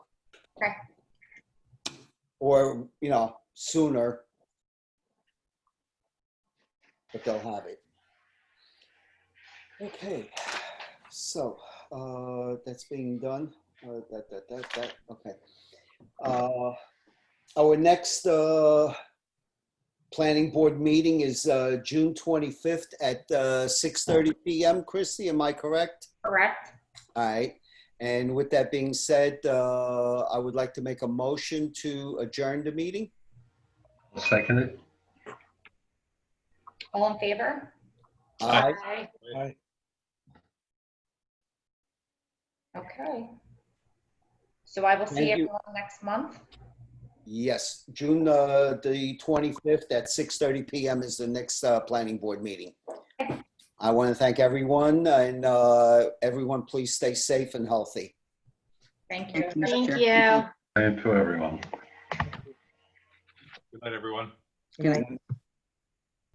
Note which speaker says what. Speaker 1: Okay.
Speaker 2: Or, you know, sooner. But they'll have it. Okay, so, uh, that's being done. Uh, that, that, that, that, okay. Uh, our next, uh, planning board meeting is, uh, June twenty-fifth at, uh, six thirty PM. Christie, am I correct?
Speaker 1: Correct?
Speaker 2: All right, and with that being said, uh, I would like to make a motion to adjourn the meeting.
Speaker 3: I'll second it.
Speaker 1: All in favor?
Speaker 2: Aye.
Speaker 1: Aye.
Speaker 4: Aye.
Speaker 1: Okay. So I will
Speaker 2: Thank
Speaker 1: see
Speaker 2: you.
Speaker 1: everyone next month.
Speaker 2: Yes, June uh, the 25th at 6:30 PM is the next uh, planning board meeting. I want to thank everyone, and uh, everyone, please stay safe and healthy.
Speaker 1: Thank you.
Speaker 5: Thank you. Mr.
Speaker 6: Thank
Speaker 5: Chair.
Speaker 6: you.
Speaker 3: And to everyone.
Speaker 7: Good night, everyone.
Speaker 5: Good night.